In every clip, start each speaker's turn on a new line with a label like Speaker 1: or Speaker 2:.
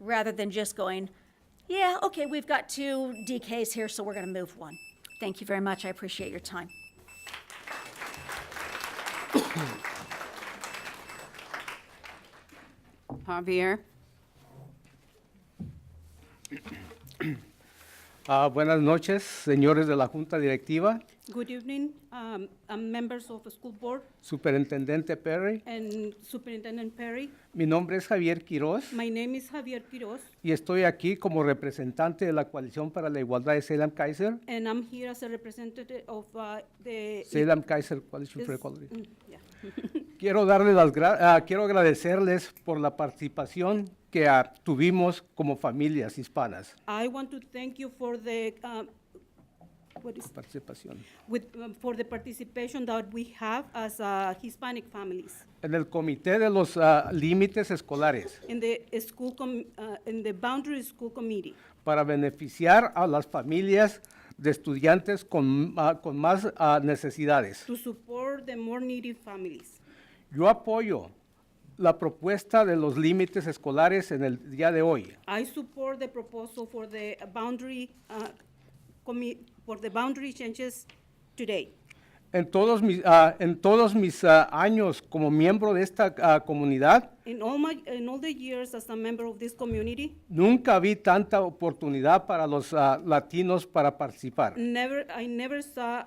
Speaker 1: rather than just going, yeah, okay, we've got two DKs here, so we're going to move one. Thank you very much. I appreciate your time.
Speaker 2: Javier?
Speaker 3: Ah, buenas noches, señores de la Junta Directiva,
Speaker 4: Good evening, um, um, members of the school board
Speaker 3: Superintendente Perry.
Speaker 4: and Superintendent Perry.
Speaker 3: Mi nombre es Javier Quiroz
Speaker 4: My name is Javier Quiroz,
Speaker 3: y estoy aquí como representante de la Coalición para la Igualdad de Salem Kaiser,
Speaker 4: and I'm here as a representative of uh, the.
Speaker 3: Salem Kaiser Coalition for
Speaker 4: Is-
Speaker 3: Equality.
Speaker 4: Mm, yeah.
Speaker 3: Quiero, darles las gra- ah, quiero agradecerles por la participación que ah, tuvimos como familias hispanas.
Speaker 4: I want to thank you for the, um, what is,
Speaker 3: Participación.
Speaker 4: with, um, for the participation that we have as uh, Hispanic families
Speaker 3: En el Comité de los ah, Límites Escolares
Speaker 4: in the uh, school, com- uh, in the boundary school committee
Speaker 3: para beneficiar a las familias de estudiantes con, ah, con más ah, necesidades.
Speaker 4: to support the more needy families.
Speaker 3: Yo apoyo la propuesta de los límites escolares en el día de hoy.
Speaker 4: I support the proposal for the boundary, uh, commi, for the boundary changes today.
Speaker 3: En todos mis, ah, en todos mis ah, años como miembro de esta ah, comunidad,
Speaker 4: In all my, in all the years as a member of this community,
Speaker 3: nunca vi tanta oportunidad para los ah, latinos para participar.
Speaker 4: never, I never saw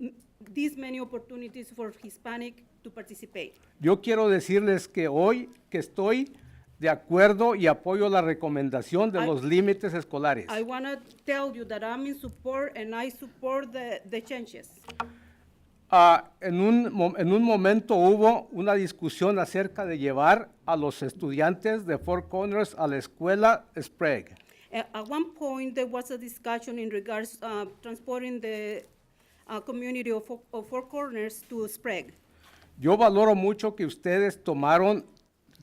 Speaker 4: mm, these many opportunities for Hispanic to participate.
Speaker 3: Yo quiero decirles que hoy que estoy de acuerdo y apoyo la recomendación de
Speaker 4: I-
Speaker 3: los límites escolares.
Speaker 4: I want to tell you that I'm in support and I support the, the changes.
Speaker 3: Ah, en, un, mo- en un momento hubo una discusión acerca de llevar a los estudiantes de Four Corners a la escuela Sprague.
Speaker 4: At, Uh, at one point, there was a discussion in regards, uh, transporting the, uh, community of, Four- of Four Corners to Sprague.
Speaker 3: Yo valoro mucho que ustedes tomaron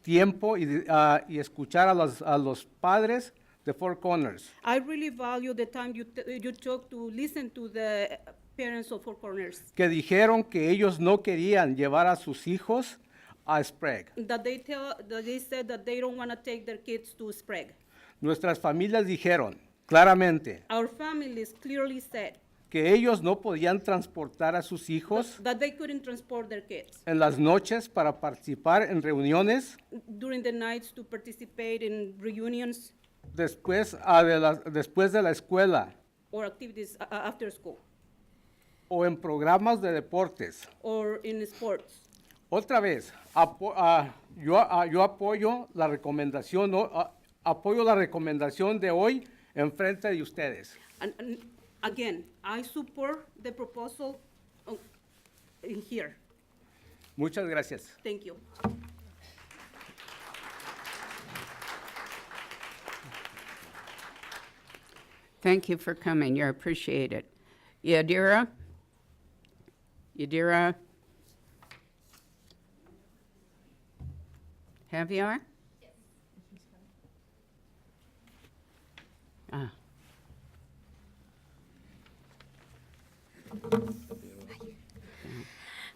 Speaker 3: tiempo y, ah, y escuchar a los, a los padres de Four Corners.
Speaker 4: I really value the time you, t- you took to listen to the parents of Four Corners,
Speaker 3: que dijeron que ellos no querían llevar a sus hijos a Sprague.
Speaker 4: that they tell, that they said that they don't want to take their kids to Sprague.
Speaker 3: Nuestras familias dijeron claramente
Speaker 4: Our families clearly said
Speaker 3: que ellos no podían transportar a sus hijos
Speaker 4: that they couldn't transport their kids
Speaker 3: en las noches para participar en reuniones
Speaker 4: during the nights to participate in reunions
Speaker 3: después, ah, de la, después de la escuela
Speaker 4: or activities uh, after school
Speaker 3: o en programas de deportes.
Speaker 4: or in sports.
Speaker 3: Otra vez, apo- ah, yo, ah, yo apoyo la recomendación, ¿no? Ah, apoyo la recomendación de hoy en frente de ustedes.
Speaker 4: And, and again, I support the proposal uh, in here.
Speaker 3: Muchas gracias.
Speaker 4: Thank you.
Speaker 2: Thank you for coming. You're appreciated. Yadira? Yadira? Javier? Ah,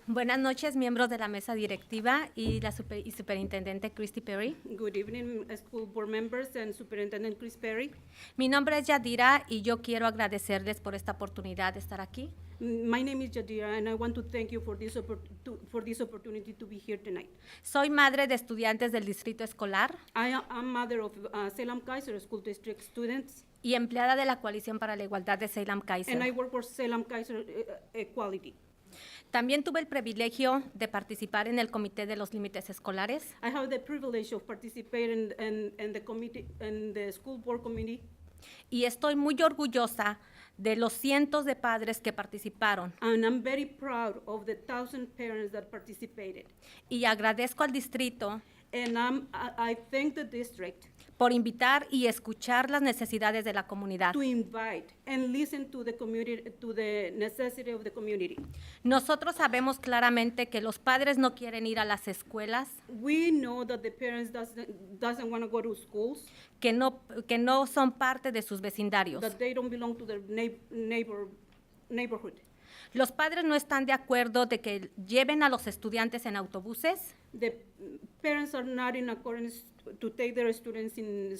Speaker 5: Buenas noches, miembros de la mesa directiva y la super- y superintendente Christy Perry.
Speaker 4: Good evening, uh, school board members and Superintendent Chris Perry.
Speaker 5: Mi nombre es Yadira y yo quiero agradecerles por esta oportunidad de estar aquí.
Speaker 4: Mm, My name is Jadira, and I want to thank you for this, oppor- to- for this opportunity to be here tonight.
Speaker 5: Soy madre de estudiantes del distrito escolar
Speaker 4: I am I'm mother of uh, Salem Kaiser School District students,
Speaker 5: y empleada de la Coalición para la Igualdad de Salem
Speaker 4: and I
Speaker 5: Kaiser.
Speaker 4: work for Salem Kaiser uh, uh, Equality.
Speaker 5: También tuve el privilegio de participar en el Comité de los Límites Escolares
Speaker 4: I have the privilege of participating in, in, in the committee, in the school board committee.
Speaker 5: y estoy muy orgullosa de los cientos de padres que participaron
Speaker 4: And I'm very proud of the thousand parents that participated.
Speaker 5: y agradezco al distrito
Speaker 4: And I'm, I, I thank the district
Speaker 5: por invitar y escuchar las necesidades de la comunidad.
Speaker 4: to invite and listen to the community, to the necessity of the community.
Speaker 5: Nosotros sabemos claramente que los padres no quieren ir a las escuelas,
Speaker 4: We know that the parents doesn't, doesn't want to go to schools,
Speaker 5: que no, que no son parte de sus vecindarios.
Speaker 4: that they don't belong to their neigh- neighbor, neighborhood.
Speaker 5: Los padres no están de acuerdo de que lleven a los estudiantes en autobuses
Speaker 4: The parents are not in accordance to take their students in